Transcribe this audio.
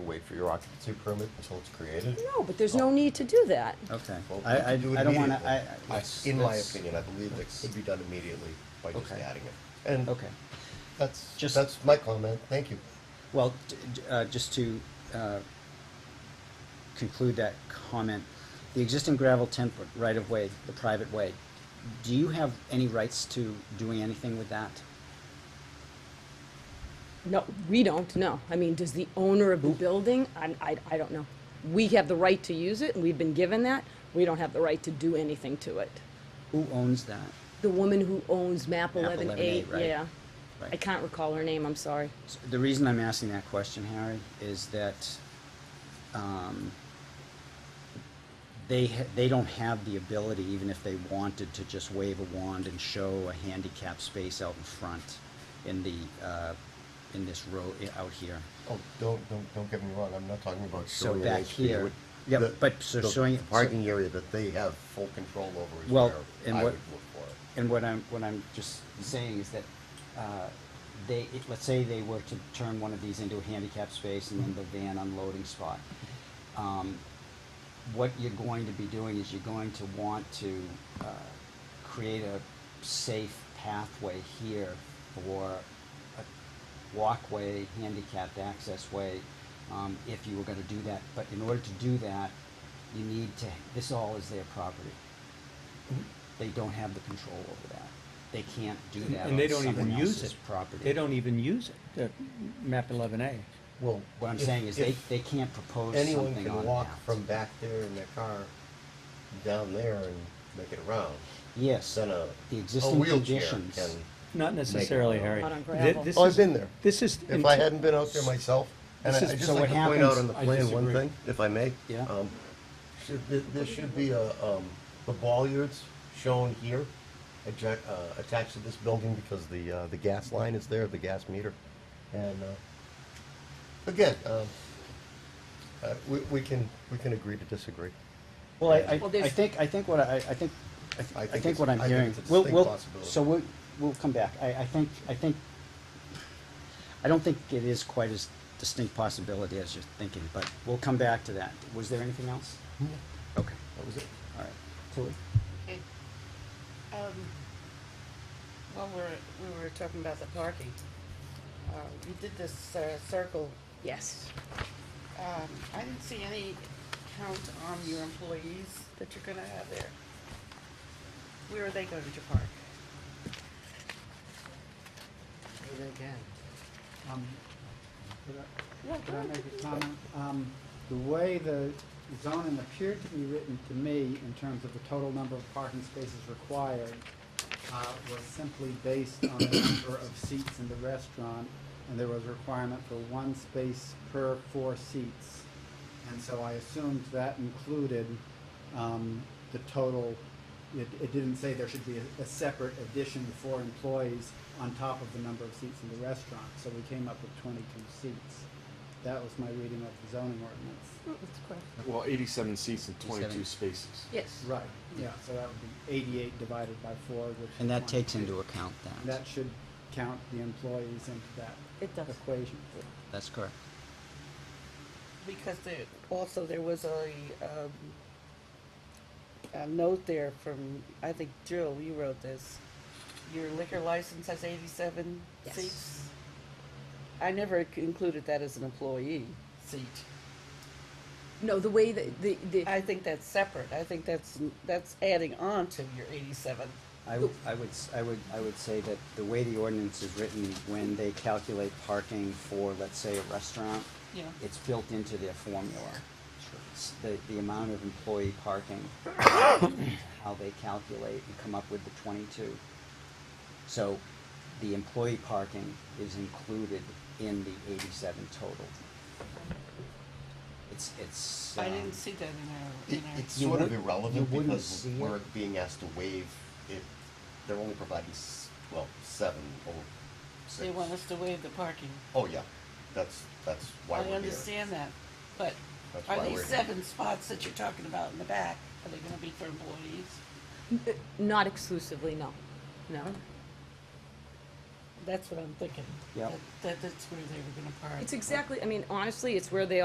wait for your occupancy permit until it's created? No, but there's no need to do that. Okay, Well, I, I, I you do it don't wanna, immediately. I. I- let's- In my let's- opinion, I believe it could be done immediately by just Okay. adding it. And Okay, that's, Just- that's my comment, thank you. well, d- d- uh, just to, uh, conclude that comment, the existing gravel temp right of way, the private way, do you have any rights to doing anything with that? No, we don't, no. I mean, does the owner of the building, I, I, I don't know. We have the right to use it, and we've been given that. We don't have the right to do anything to it. Who owns that? The woman who owns map Map eleven eight, 11A, right. yeah. Right. I can't recall her name, I'm sorry. So The reason I'm asking that question, Harry, is that um, they, ha- they don't have the ability, even if they wanted, to just wave a wand and show a handicap space out in front in the, uh, in this row, i- out here. Oh, don't, don't, don't get me wrong, I'm not talking about So showing an back HP. here- What- yeah, the- but so the- showing- The parking area that they have full control over is Well, where and I what- would look for it. And what I'm, what I'm just saying is that uh, they, it- let's say they were to turn one of these into a handicap space and then the van unloading spot. Um, What you're going to be doing is you're going to want to uh, create a safe pathway here for a walkway, handicapped access way, um, if you were gonna do that. But in order to do that, you need to, this all is their property Mm-hmm. they don't have the control over that. They can't do And- that And they on don't even someone use else's it. property. They don't even use it, the map eleven A. Well, What I'm if- saying is they, if they can't propose something on anyone that. can walk from back there in their car down there and make it around, Yes, then a, the a existing wheelchair conditions. can. Not necessarily, out. Harry. Not on Thi- gravel. this Oh, is- I've been there. This is. If I hadn't been out there myself, and I This I is- just so like what to point out happens- on the I plan one disagree. thing, if I may. Yeah. Um, Should, there, there should be a, um, the bollards shown here, attac- uh, attached to this building because the, uh, the gas line is there, the gas meter. And, uh, again, um, uh, we, we can, we can agree to disagree. Well, I, I, Well, I there's- think, I think what I, I think, I I th- I think think it's- what I'm I think hearing, it's a we'll, distinct we'll, possibility. so we'll, we'll come back. I, I think, I think, I don't think it is quite as distinct possibility as you're thinking, but we'll come back to that. Was there anything else? Hmm. Okay, That was it. all right. Tilly? It- Um, well, we're, we were talking about the parking. Uh, you did this, uh, circle, Yes. um, I didn't see any count on your employees that you're gonna have there. Where are they going to park? They can. Um, could Yeah, I, could I go make a comment? Um, the way the zoning appeared to be written to me in terms of the total number of parking spaces required, uh, was simply based on the number of seats in the restaurant, and there was a requirement for one space per four seats. And so I assumed that included, um, the total, it, it didn't say there should be a, a separate addition for employees on top of the number of seats in the restaurant, so we came up with twenty-two seats. That was my reading of the zoning ordinance. Well, 87 seats and 87. 22 spaces. Yes. Right, yeah, so that would be eighty-eight divided by four, which. And that is takes 22. into account And That should count the employees into that It does. equation. That's correct. Because there, also there was a, um, a note there from, I think Jill, you wrote this. Your liquor license has eighty-seven Yes. seats? I never c- included that as an employee seat. No, the way that, the, the, uh, I think that's separate. I think that's, that's adding on to your eighty-seven. I, w- I would, s- I would, I would say that the way the ordinance is written, when they calculate parking for, let's say, a restaurant, Yeah. it's built into their formula. S- The, the amount of employee parking, how they calculate and come up with the twenty-two. So the employee parking is included in the eighty-seven total. It's, it's. I um, didn't see that in our, It, in our. it's You sort of wouldn't- you irrelevant wouldn't because see we're it. being asked to waive it. They're only providing, s- well, seven or six. They want us to waive the parking. Oh, yeah, that's, that's why I we're here. understand that, but That's are why these we're here. seven spots that you're talking about in the back, are they gonna be for employees? not exclusively, no, no. That's what I'm thinking. Yep. That- That, that's where they were gonna park. It's exactly, I mean, honestly, it's where they